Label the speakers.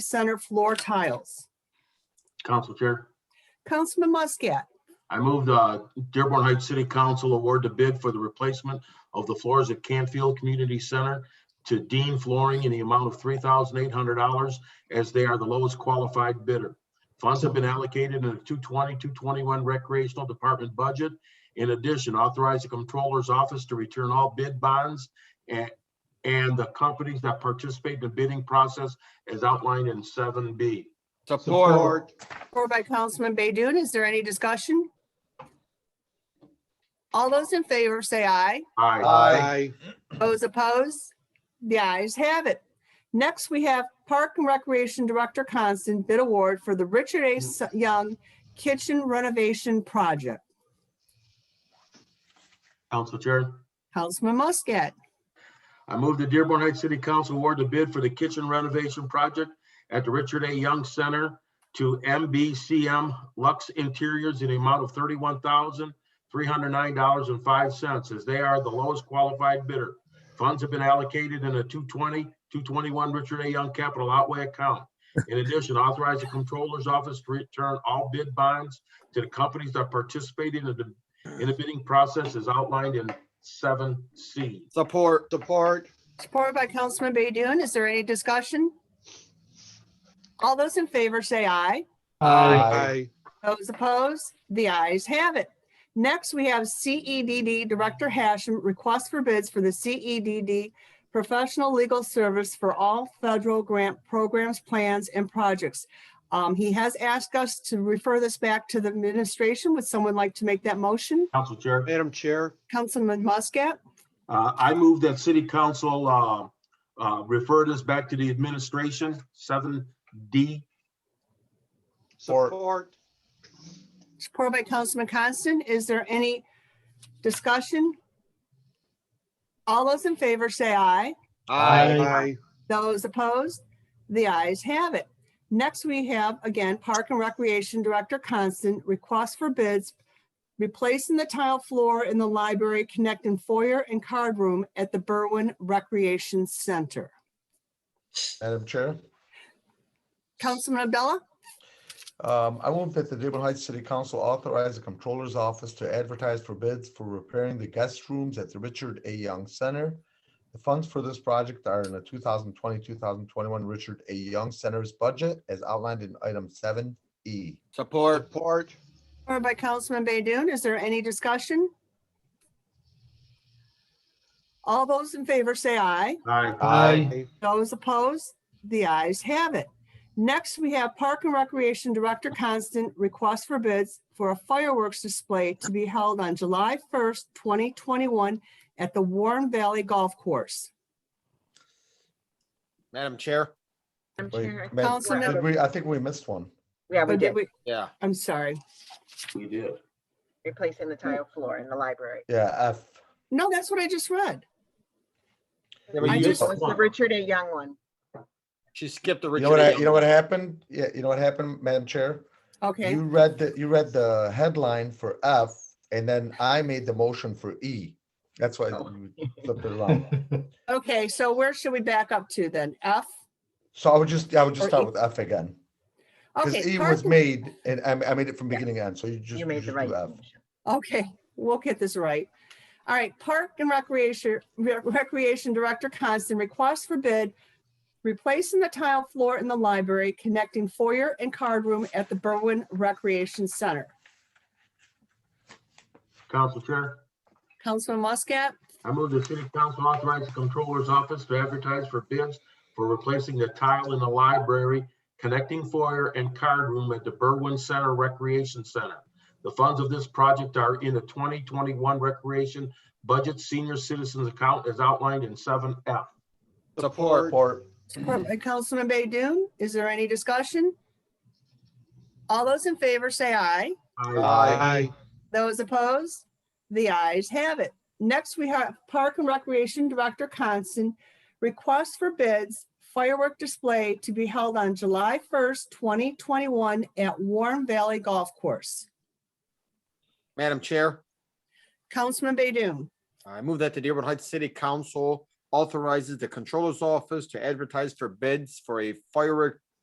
Speaker 1: center floor tiles.
Speaker 2: Council Chair,
Speaker 1: Councilman Muscat,
Speaker 2: I move the Dearborn Heights City Council award the bid for the replacement of the floors at Canfield Community Center to Dean Flooring in the amount of three thousand eight hundred dollars as they are the lowest qualified bidder. Funds have been allocated in the 220-221 recreational department budget. In addition, authorize the comptroller's office to return all bid bonds and, and the companies that participate in the bidding process as outlined in seven B.
Speaker 3: Support.
Speaker 1: or by Councilman Baydun, is there any discussion? All those in favor say aye.
Speaker 2: Aye.
Speaker 3: Aye.
Speaker 1: Those opposed? The ayes have it. Next, we have Park and Recreation Director Constant bid award for the Richard A. S- Young Kitchen Renovation Project.
Speaker 2: Council Chair.
Speaker 1: Councilman Muscat,
Speaker 2: I move the Dearborn Heights City Council award the bid for the kitchen renovation project at the Richard A. Young Center to MBCM Lux Interiors in the amount of thirty-one thousand, three hundred nine dollars and five cents, as they are the lowest qualified bidder. Funds have been allocated in a 220, 221 Richard A. Young capital outlay account. In addition, authorize the Comptroller's Office to return all bid bonds to the companies that participated in the, in the bidding process as outlined in seven C.
Speaker 3: Support. Support.
Speaker 1: supported by Councilman Baydun, is there any discussion? All those in favor say aye.
Speaker 3: Aye.
Speaker 1: Those opposed? The ayes have it. Next, we have CEDD Director Hashem request for bids for the CEDD professional legal service for all federal grant programs, plans, and projects. Um, He has asked us to refer this back to the administration. Would someone like to make that motion?
Speaker 2: Council Chair.
Speaker 3: Madam Chair,
Speaker 1: Councilman Muscat,
Speaker 2: Uh, I move that city council, uh, uh, refer this back to the administration, seven D.
Speaker 3: support.
Speaker 1: supported by Councilman Constant. Is there any discussion? All those in favor say aye.
Speaker 3: Aye.
Speaker 1: Those opposed? The ayes have it. Next, we have, again, Park and Recreation Director Constant, request for bids, replacing the tile floor in the library connecting foyer and card room at the Berwin Recreation Center.
Speaker 4: Madam Chair,
Speaker 1: Councilman Abdullah,
Speaker 4: um, I move that the Dearborn Heights City Council authorize the Comptroller's Office to advertise for bids for repairing the guest rooms at the Richard A. Young Center. The funds for this project are in the 2020-2021 Richard A. Young Center's budget as outlined in item seven E.
Speaker 3: Support. Support.
Speaker 1: or by Councilman Baydoun, is there any discussion? All those in favor say aye.
Speaker 2: Aye.
Speaker 3: Aye.
Speaker 1: Those opposed? The ayes have it. Next, we have Park and Recreation Director Constant request for bids for a fireworks display to be held on July 1st, 2021 at the Warren Valley Golf Course.
Speaker 5: Madam Chair,
Speaker 6: I'm
Speaker 4: Wait,
Speaker 6: sure.
Speaker 4: Madam-
Speaker 1: Councilmember-
Speaker 4: did we- I think we missed one.
Speaker 6: Yeah, we
Speaker 1: Or
Speaker 6: did,
Speaker 1: did we-
Speaker 5: yeah,
Speaker 1: I'm sorry.
Speaker 2: We did.
Speaker 6: replacing the tile floor in the library.
Speaker 4: Yeah, F.
Speaker 1: No, that's what I just read. I
Speaker 5: Yeah, but you-
Speaker 1: just-
Speaker 6: It was the Richard A. Young one.
Speaker 5: she skipped the
Speaker 4: You
Speaker 5: Richard.
Speaker 4: know what, I-
Speaker 5: A.
Speaker 4: you know what happened? Yeah, you know what happened, Madam Chair?
Speaker 1: Okay,
Speaker 4: You read the, you read the headline for F and then I made the motion for E. That's why
Speaker 6: Oh.
Speaker 4: you flipped it around.
Speaker 1: okay, so where should we back up to then? F?
Speaker 4: So I would just, I would just
Speaker 1: Or E.
Speaker 4: start with F again. Because
Speaker 1: Okay.
Speaker 4: E
Speaker 1: Park
Speaker 4: was
Speaker 1: and-
Speaker 4: made and I, I made it from
Speaker 6: Yeah.
Speaker 4: beginning to end, so you just.
Speaker 6: You made
Speaker 4: just
Speaker 6: the
Speaker 4: do
Speaker 6: right
Speaker 4: F.
Speaker 6: motion.
Speaker 1: Okay, we'll get this right. All right, Park and Recreation, Re- Recreation Director Constant requests for bid, replacing the tile floor in the library, connecting foyer and card room at the Berwin Recreation Center.
Speaker 2: Council Chair,
Speaker 1: Councilman Muscat,
Speaker 2: I move the city council authorize the comptroller's office to advertise for bids for replacing the tile in the library, connecting foyer and card room at the Berwyn Center Recreation Center. The funds of this project are in the twenty twenty-one recreation budget senior citizens account as outlined in seven F.
Speaker 5: Support.
Speaker 4: Or
Speaker 1: support by Councilman Baydoun. Is there any discussion? All those in favor say aye.
Speaker 3: Aye.
Speaker 1: Those opposed? The ayes have it. Next, we have Park and Recreation Director Constant request for bids firework display to be held on July 1st, 2021 at Warm Valley Golf Course.
Speaker 5: Madam Chair,
Speaker 1: Councilman Baydoun,
Speaker 5: I move that the Dearborn Heights City Council authorizes the Controller's Office to advertise for bids for a firework